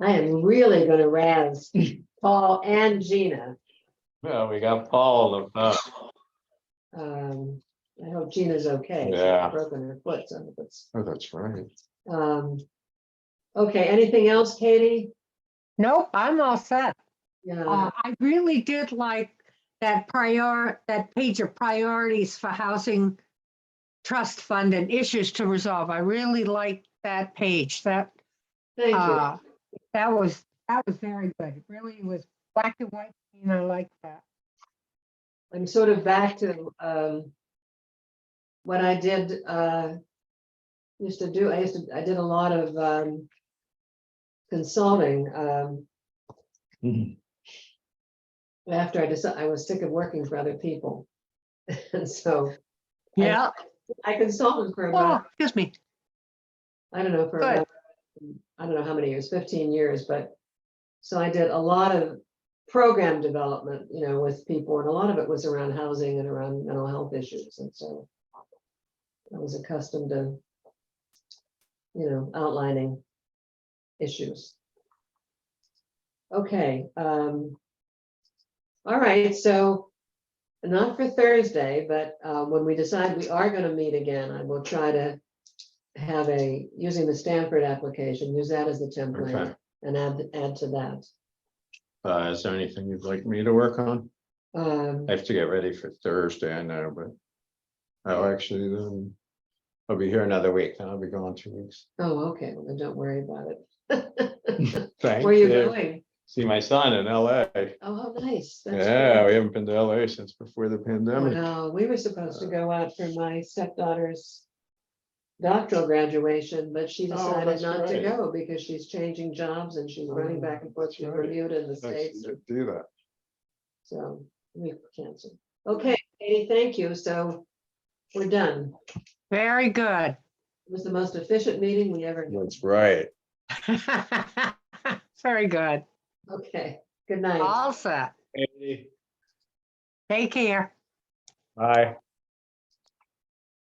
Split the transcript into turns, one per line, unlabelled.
I am really gonna razz Paul and Gina.
Well, we got Paul, uh,
Um, I hope Gina's okay. She's
Yeah.
Broken her foot, so it's,
oh, that's right.
um. Okay, anything else, Katie?
Nope, I'm all set.
Yeah,
Uh, I really did like that prior, that page of priorities for housing trust fund and issues to resolve. I really liked that page. That,
thank you.
uh, that was, that was very good. It Really was black and white, and I like that.
I'm sort of back to um. What I did uh. Used to do, I used to, I did a lot of um. Consulting um
Mhm.
after I decided I was sick of working for other people. And so
Yeah,
I consulted for
oh,
about,
excuse me.
I don't know, for
good.
about, I don't know how many years, fifteen years, but. So I did a lot of program development, you know, with people and a lot of it was around housing and around mental health issues and so. I was accustomed to. You know, outlining issues. Okay, um. All right, so not for Thursday, but uh, when we decide we are gonna meet again, I will try to. Have a, using the Stanford application, use that as the template
Okay.
and add, add to that.
Uh, is there anything you'd like me to work on?
Um,
I have to get ready for Thursday, I know, but. I'll actually, um, I'll be here another week, and I'll be gone two weeks.
oh, okay, well, then don't worry about it.
Thank
Where are you going?
See my son in LA.
Oh, how nice. that's
Yeah,
great.
we haven't been to LA since before the pandemic.
Wow, we were
Uh,
supposed to go out for my stepdaughter's doctoral graduation, but she
Oh,
decided
that's
not to
right.
go because she's changing jobs and she's running
Oh,
back and forth
that's
from
right.
Bermuda and the
Nice
States,
to Do that.
so we canceled. Okay, Katie, thank you, so we're done.
Very good.
It was the most efficient meeting we ever, had.
That's right.
Very good.
okay, good night.
All set. Take care.
Bye.